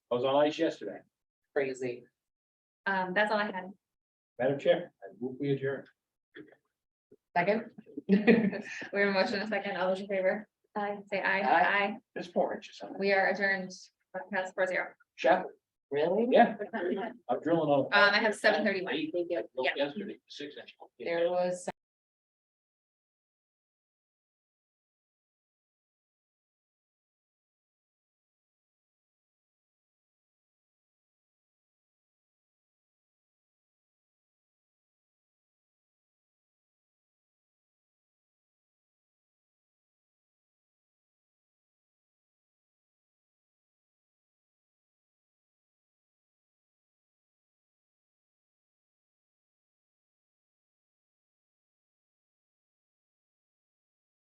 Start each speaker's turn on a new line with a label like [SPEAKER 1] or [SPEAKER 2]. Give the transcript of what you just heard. [SPEAKER 1] I was on ice yesterday.
[SPEAKER 2] crazy.
[SPEAKER 3] Um, that's all I had.
[SPEAKER 1] Madam Chair, I move we adjourn.
[SPEAKER 2] Second?
[SPEAKER 3] We have a motion and a second. All those in favor? Aye. Say aye.
[SPEAKER 2] Aye.
[SPEAKER 3] Aye.
[SPEAKER 1] It's four inches.
[SPEAKER 3] We are adjourned. Pass four zero.
[SPEAKER 1] Chapel,
[SPEAKER 2] Really?
[SPEAKER 1] yeah,
[SPEAKER 3] Um,
[SPEAKER 1] I'm drilling on.
[SPEAKER 2] Uh,
[SPEAKER 3] I have seven thirty-one.
[SPEAKER 1] Eight,
[SPEAKER 2] Thank you.
[SPEAKER 3] Yeah.
[SPEAKER 1] Yesterday, six inch.
[SPEAKER 2] There was